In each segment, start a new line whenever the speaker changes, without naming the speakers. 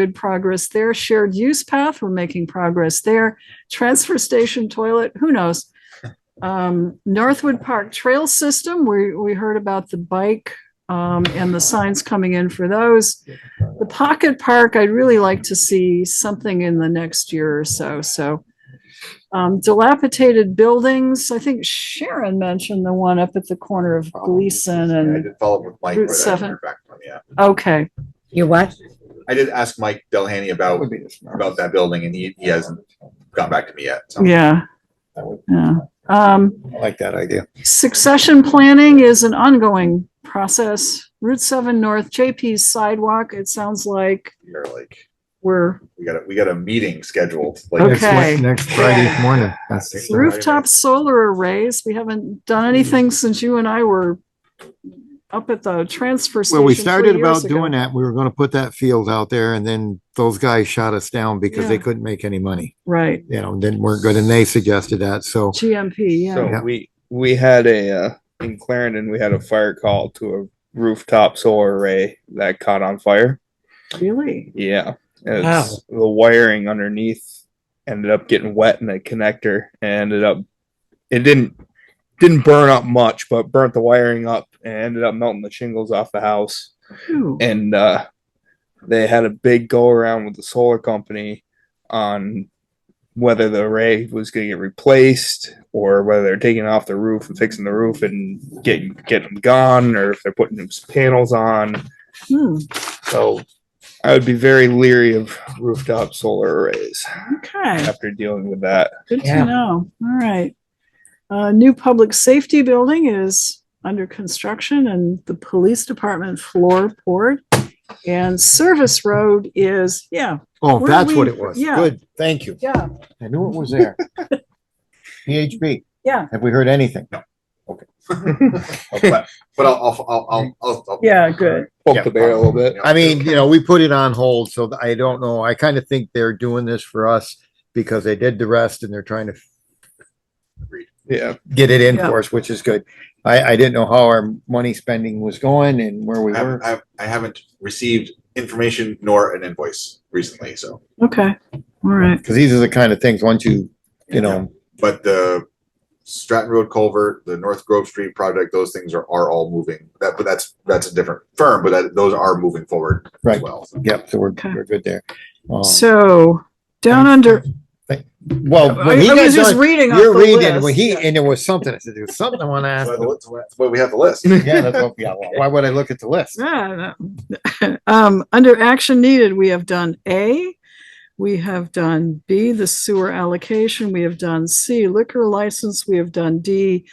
good progress there. Shared use path, we're making progress there. Transfer station toilet, who knows? Um, Northwood Park Trail System, we, we heard about the bike, um, and the signs coming in for those. The Pocket Park, I'd really like to see something in the next year or so, so. Um, dilapidated buildings, I think Sharon mentioned the one up at the corner
Oh,
of Gleason
Yeah, I
and,
did follow up with Mike.
Route
but I haven't
seven.
heard back from him yet.
okay,
You what?
I did ask Mike Delhany about,
be the smartest.
about that building and he, he hasn't gotten back to me yet. so.
yeah.
That would-
Yeah, um.
I like that idea.
Succession planning is an ongoing process. Route seven North, JP's sidewalk, it sounds like
You're like,
we're
we got a, we got a meeting scheduled. like-
Next Okay. Wed-
Next Friday morning.
rooftop solar arrays. We haven't done
Hmm.
anything since you and I were up at the transfer station.
Well, we
three
started about
years ago.
doing that. We were gonna put that field out there and then those guys shot us down because they
Yeah.
couldn't make any money.
Right,
You know, didn't, weren't good and they suggested that. So
GMP, yeah.
Yeah.
So we, we had a, uh, in Clarendon, we had a fire call to a rooftop solar array that caught on fire.
Really?
Yeah. It's, the wiring underneath ended up getting wet in the connector and ended up, it didn't, didn't burn up much, but burnt the wiring up and ended up melting the shingles off the house
Phew.
and uh, they had a big go around with the solar company on whether the array was going to get replaced or whether they're taking off the roof and fixing the roof and getting getting them gone or if they're putting those panels on.
Hmm,
So I would be very leery of rooftop solar arrays
okay,
after dealing with that.
good to
Yeah.
know. All right. Uh, new public safety building is under construction and the police department floorboard. And service road is, yeah,
Oh,
Where
that's
we-
what it was.
yeah.
Good. Thank you.
Yeah,
I knew it was there. PHB,
yeah,
have we heard anything?
But but I'll, I'll- I'll, I'll, I'll. I'll-
yeah, good.
Poke
Yeah,
the bear a little bit.
I mean, you know, we put it on hold, so I don't know. I kind of think they're doing this for us because they did the rest and they're trying to
Yeah.
get it in
Yeah.
for us, which is good. I, I didn't know how our money spending was going and where we
I
were.
haven't, I- I haven't received information nor an invoice recently, so,
Okay, all right.
Cause these are the kind of things, once you, you know,
but the Stratton Road Culvert, the North Grove Street project, those things are, are all moving. That, but that's, that's a different firm, but that, those are moving forward as
Right.
well. so.
yep, so we're,
Okay.
we're good there. Um,
So down under,
Well,
I I
when he got
was just
done,
reading off
you're
the
reading, when
list.
he, and there was something, I said, there's something I wanna ask.
So that's why- that's why we have the list.
Yeah, that's what, yeah, why would I look at the list?
Yeah, no. Um, under action needed, we have done A, we have done B, the sewer allocation, we have done C, liquor license, we have done D.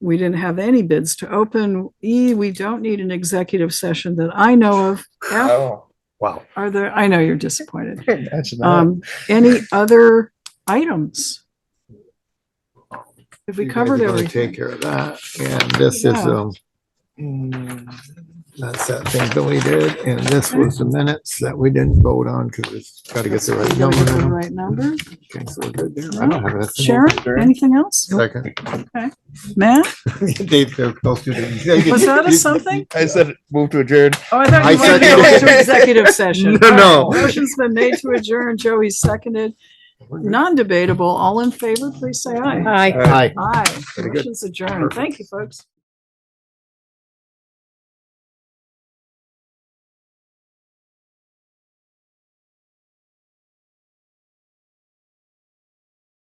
We didn't have any bids to open. E, we don't need an executive session that I know of. F,
Oh.
Wow.
are there, I know you're disappointed.
That's not-
Um, any other items? Have we
you guys
covered
are gonna
everything?
Take care of that, and this is,
Yeah.
um, that's that thing Billy did, and this was the minutes that we didn't vote on, cause it's gotta get the right
Did I
number.
get the
now.
right number?
Okay, so we're good there. I don't have anything.
Sharon, anything else?
Second.
Matt?
Dave, they're supposed to do-
Was that a something?
I said move to adjourn.
Oh, I thought
I
you wanted to
seconded
go
it.
into executive session.
No, no.
All right, Motion's been made to adjourn. Joey seconded. Non-debatable. All in favor, please say aye.
Hi.
Hi.
Aye.
Very good.
Motion's adjourned. Thank you, folks.